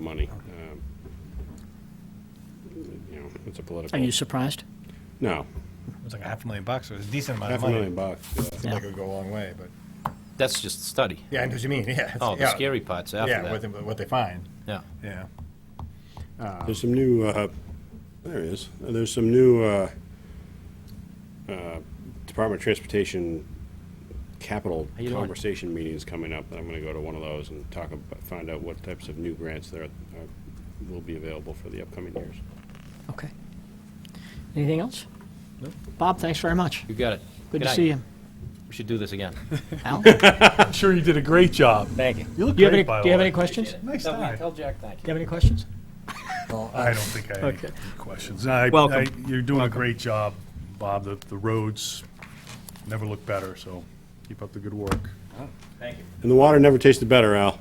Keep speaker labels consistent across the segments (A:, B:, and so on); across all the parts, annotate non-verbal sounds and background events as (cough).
A: money. Um, You know, it's a
B: Are
A: political,
B: you surprised?
A: no,
C: It was like a half a million bucks. so It was a decent amount
A: half
C: of
A: a
C: money.
A: million bucks. yeah.
C: Seemed
B: Yeah.
C: like it would go a long way, but
D: That's just the study.
C: yeah, I know what you mean. (laughs) Yeah.
D: Oh, the
C: yeah.
D: scary part's
C: Yeah,
D: after
C: what they,
D: that.
C: what they find.
D: Yeah.
C: Yeah.
A: There's some new, uh, there it is, there's some new uh, uh, Department of Transportation capital
D: How you doing?
A: conversation meetings coming up. I'm going to go to one of those and talk, about find out what types of new grants there are- uh, will be available for the upcoming years.
B: Okay. Anything else? No. Bob, thanks very much.
D: You got it.
B: Good to
D: night.
B: see you.
D: We should do this again.
B: Al?
E: I'm sure you did a great job.
B: Thank you.
E: You look
B: Do you have
E: great,
B: any,
E: by
B: do you
E: the
B: have
E: way.
B: any questions? Do
C: Nice
D: Tell-
C: time.
D: Tell Jack thank
B: you
D: you.
B: have any questions?
C: I don't think I have
B: Okay.
C: any questions. I,
E: Welcome.
C: I- you're doing a great job, Bob. The, the roads never look better, so keep up the good work.
D: Thank you.
A: And the water never tasted better, Al.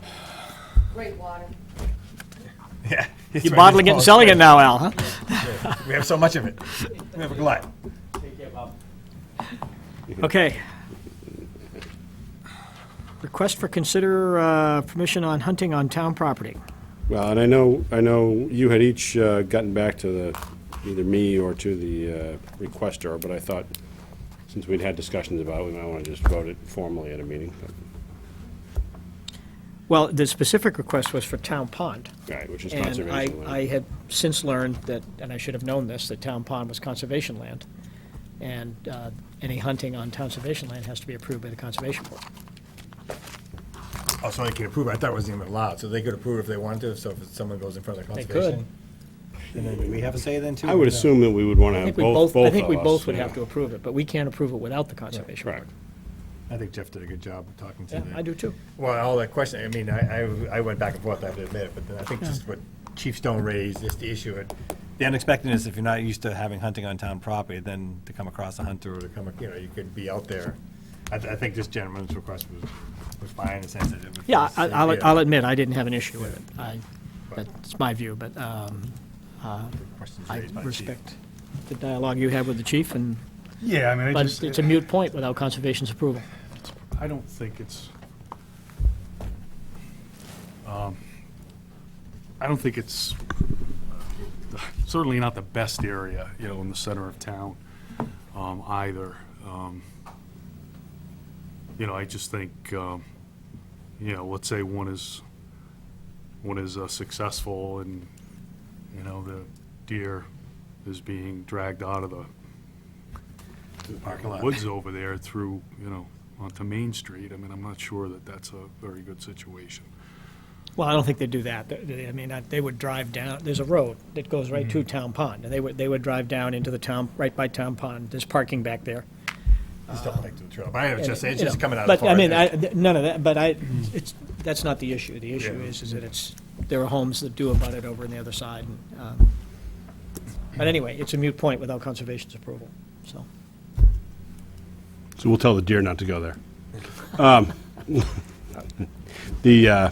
F: Great water.
C: (laughs) Yeah.
B: You're bottling it and selling it now, Al, huh?
C: We have so much of it. (laughs) We have a glut.
D: Take care, Bob.
B: Okay. Request for consider uh, permission on hunting on town property.
A: Well, and I know, I know you had each uh, gotten back to the, either me or to the uh, requester, but I thought, since we'd had discussions about it, we might want to just vote it formally at a meeting. But-
B: Well, the specific request was for Town Pond.
A: Right, which is
B: And I,
A: conservation
B: I
A: land.
B: had since learned that, and I should have known this, that Town Pond was conservation land. And uh, any hunting on conservation land has to be approved by the Conservation Board.
C: Oh, so they could approve. it. I thought it wasn't even allowed. So they could approve if they wanted to. So if someone goes in front of the
B: They could.
C: conservation. And then do we have a say then too?
A: I would assume that we would want to
B: I
A: have
B: think we
A: both, both of
B: I
A: us.
B: think we both would
A: yeah.
B: have to approve it, but we can't approve it without the Conservation Board.
A: Correct.
C: I think Jeff did a good job of talking to
B: Yeah,
C: the-
B: I do too.
C: Well, all that question, I mean, I, I- I went back and forth, I have to admit, but then I think just what Chief Stone raised, just the issue of. The unexpectedness, if you're not used to having hunting on town property, then to come across a hunter or to come, you know, you could be out there. I, th- I think this gentleman's request was, was fine in the sense that it was.
B: Yeah, I- I'll, I'll admit, I didn't have an issue with it. I, that's my view, but um,
C: Questions
B: I
C: raised by Chief.
B: respect the dialogue you had with the chief, and,
E: Yeah, I mean, I
B: but
E: just,
B: it's a mute point without Conservation's approval.
E: I don't think it's, um, I don't think it's, uh, certainly not the best area, you know, in the center of town, um, either. Um, You know, I just think, um, you know, let's say one is, one is uh, successful and, you know, the deer is being dragged out of the
C: Parking lot.
E: woods over there through, you know, onto Main Street. I mean, I'm not sure that that's a very good situation.
B: Well, I don't think they'd do that. They- they- I mean, I- they would drive down, there's a road that goes right to Town Pond, and they would, they would drive down into the town, right by Town Pond. There's parking back there.
C: Just don't like to the trail, but I was just, it's
B: You
C: just
B: know,
C: coming out of.
B: But, I
C: Florida. Mm.
B: mean, I, th- none of that, but I, it's, that's not the issue. The issue
C: Yeah.
B: is, is that it's, there are homes that do abut it over on the other side. and, um, But anyway, it's a mute point without Conservation's approval, so.
A: So we'll tell the deer not to go there. Um, (laughs) The, uh,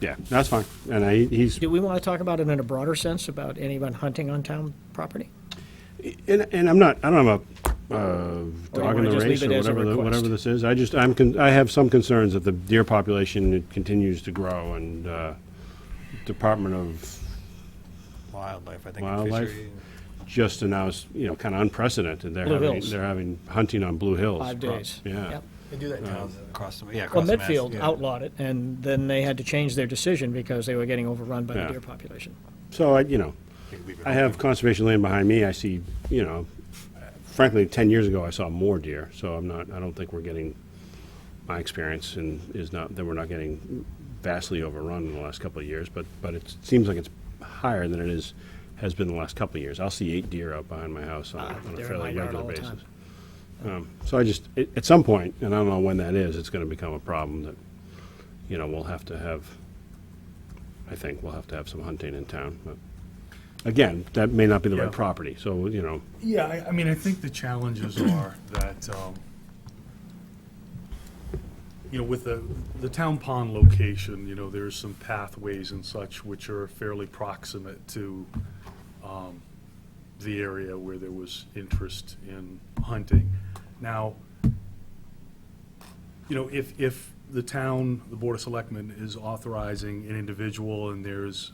A: yeah, that's fine. And I, he's,
B: Do we want to talk about it in a broader sense, about anyone hunting on town property?
A: And, and I'm not, I don't have a uh, dog in
B: wanna
A: the
B: just
A: race
B: leave
A: or
B: it as a
A: whatever, the- whatever
B: request?
A: this is. I just, I'm, con- I have some concerns that the deer population continues to grow and uh, Department of
C: Wildlife, I think. and
A: Wildlife?
C: fishery.
A: just announced, you know, kind of unprecedented. They're
B: Blue
A: having,
B: Hills.
A: they're having hunting on Blue Hills.
B: Five
A: Pro-
B: days.
A: Yeah.
B: Yep.
C: They do that in towns across the, yeah,
B: Well,
C: across the Mass,
B: Medfield
C: yeah.
B: outlawed it, and then they had to change their decision because they were getting overrun by the
A: Yeah.
B: deer population.
A: So I, you know,
C: They leave it
A: I have conservation land behind me. I see, you know, frankly, 10 years ago, I saw more deer. So I'm not, I don't think we're getting, my experience and is not, that we're not getting vastly overrun in the last couple of years, but, but it seems like it's higher than it is, has been the last couple of years. I'll see eight deer out behind my house on,
B: Ah,
A: a- on
B: they're
A: a
B: in
A: fairly
B: my yard
A: regular
B: all the
A: basis.
B: time.
A: Um, so I just, at, at some point, and I don't know when that is, it's going to become a problem that, you know, we'll have to have, I think we'll have to have some hunting in town. But again, that may not be the
E: Yeah.
A: right property. So, you know,
E: Yeah, I, I mean, I think the challenges are that, um, you know, with the, the town pond location, you know, there's some pathways and such which are fairly proximate to, um, the area where there was interest in hunting. Now, you know, if, if the town, the Board of Selectmen is authorizing an individual, and there's